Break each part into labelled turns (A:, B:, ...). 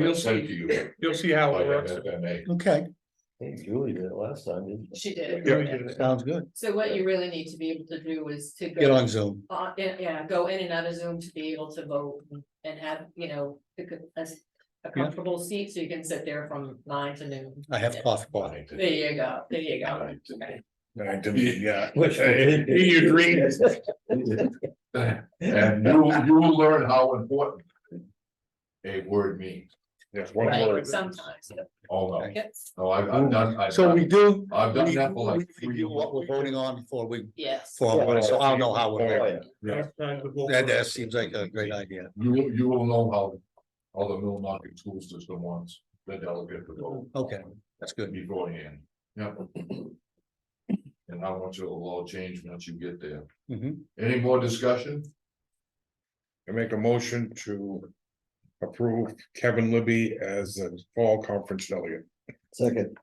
A: You'll
B: Send to
A: see,
B: you. Oh,
A: you'll see how it works.
C: Okay,
D: think Julie did it last time, didn't she?
E: She did.
A: Yeah.
E: it.
C: sounds good.
E: So what you really need to be able to do is to
C: Get
E: go,
C: on Zoom.
E: on- yeah, yeah, go in and out of Zoom to be able to vote and have, you know, a co- a s- a comfortable seat so you can sit there from nine to noon.
C: I have coffee party.
E: There you go, there you go.
B: Nine to me, yeah.
D: Which we did.
B: In your dreams. And you, you will learn how important. A word means. Yes, one
E: Right, sometimes, yeah.
B: Oh, no,
E: yes,
B: no, I've, I've done, I've
C: So we
B: done,
C: do.
B: I've done
C: we-
B: that for
C: we
B: like three.
C: Review what we're voting on before we,
E: yes.
C: for, what- so I'll know how
D: Oh,
C: we're,
D: yeah.
C: that, that seems like a great idea.
B: You, will- you will know how, how the Mill Market School System wants the delegate to vote.
C: Okay, that's good.
B: Beforehand, yeah. And how much it'll all change once you get there.
C: Mhm.
B: Any more discussion?
F: I make a motion to approve Kevin Libby as a fall conference delegate.
D: Second,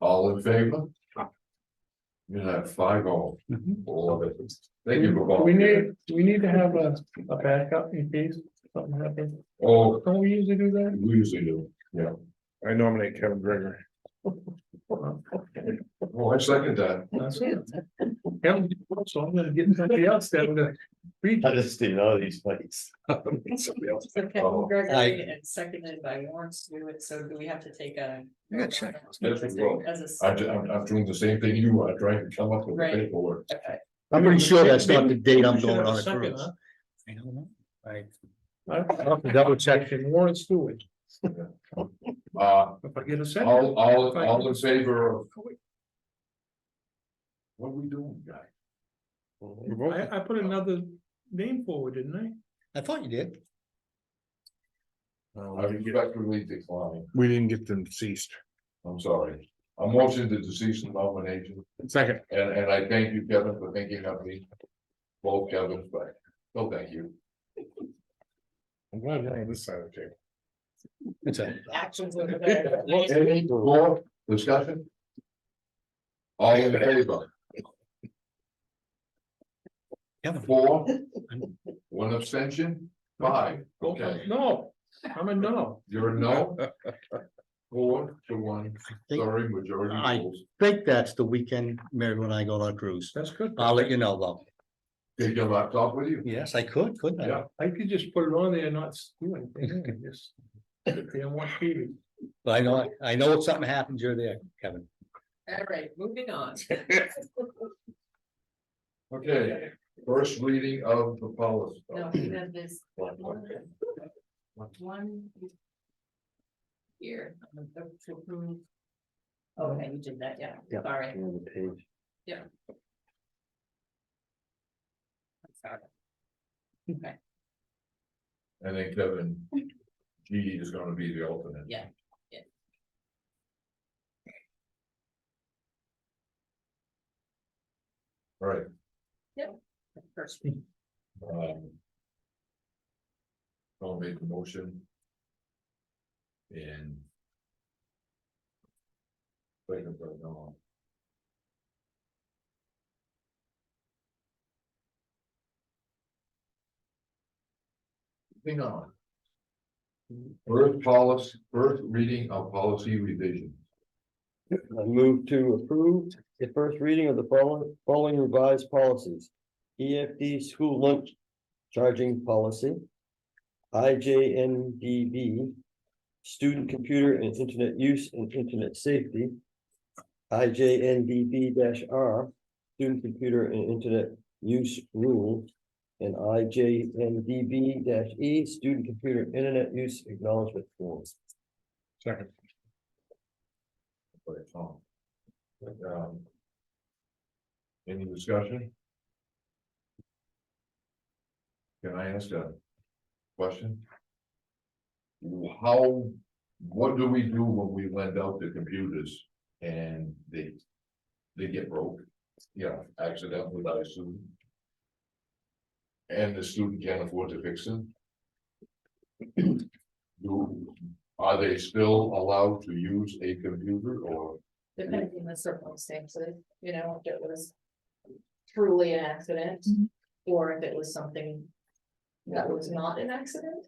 B: All in favor? You have five all.
C: Mhm.
B: All of it. Thank you
A: Mm-hmm.
B: for
A: We
B: volunteering.
A: need, we need to have a, a backup in case something happens.
B: Oh,
A: Don't we usually do that?
B: we usually do, yeah.
F: I nominate Kevin Gregory.
B: Well, Oh, I second that.
A: That's it. Yeah, so I'm gonna get somebody else that would. uh,
D: I just didn't know these places.
E: So
B: Oh.
E: Kevin Gregory
C: I-
E: and seconded by Warren Stewart, so do we have to take a?
C: Yeah, sure.
B: Yes, we will.
E: As a.
B: I ju- I'm, I'm doing the same thing you are, trying to come up with the
E: Right.
B: paperwork.
E: Okay.
C: I'm pretty sure that's not the date I'm
A: We should
C: going
A: have
C: on a
A: second,
C: cruise.
A: huh?
C: I don't know. I,
A: I'll have to double check in Warren Stewart,
B: Uh,
A: if I get a second.
B: all, all, all in favor of. What are we doing, guy?
A: I, I put another name forward, didn't
C: I thought you did.
B: I respectfully decline.
F: We didn't get them ceased.
B: I'm sorry. I'm watching the deceased nomination.
F: Second,
B: And, and I thank you, Kevin, for thinking of me. Both Kevin, but, so thank you.
F: I'm glad we're on this side of the table.
C: It's a,
E: Actions over there.
B: Any more discussion? All in favor,
C: Kevin,
B: four, one abstention, five, okay,
A: I? No, I'm a no.
B: you're a no. Four to one,
C: I think,
B: sorry, majority
C: I-
B: rules,
C: think that's the weekend Mary and I go on a cruise.
A: That's good.
C: I'll let you know though.
B: take your laptop with you.
C: Yes, I could, couldn't I?
B: Yeah.
A: I could just put it on there and not do anything, and just. sit there and watch TV.
C: But I know, I know if something happens, you're there, Kevin.
E: All right, moving on.
B: Okay, first reading of the policy.
E: No, we have this
B: One.
E: one. Here. um, to approve. Okay, you did that, yeah,
D: Yeah.
E: sorry.
D: On the page.
E: sorry.
B: And then Kevin, G is gonna be the alternate.
E: Yeah, yeah.
B: Right,
E: First,
B: um. I'll make the motion. And. Wait a minute, no. Hang on. First policy, first reading of policy revision.
D: I move to approve the first reading of the following, following revised policies. EFD school lunch charging policy. IJNDB, student computer and internet use and internet safety. IJNDB R, student computer and internet use rule. And IJNDB E, student computer internet use acknowledgement forms.
F: Second,
B: by Tom. Um, Any discussion? Can I ask a question? How, what do we do when we lend out the computers and they, they get broke? Yeah, accidentally by a student? And the student can't afford to fix them? Do, are they still allowed to use a computer or?
E: depending on the circumstances, you know, if it was truly an accident, or if it was something That was not an accident?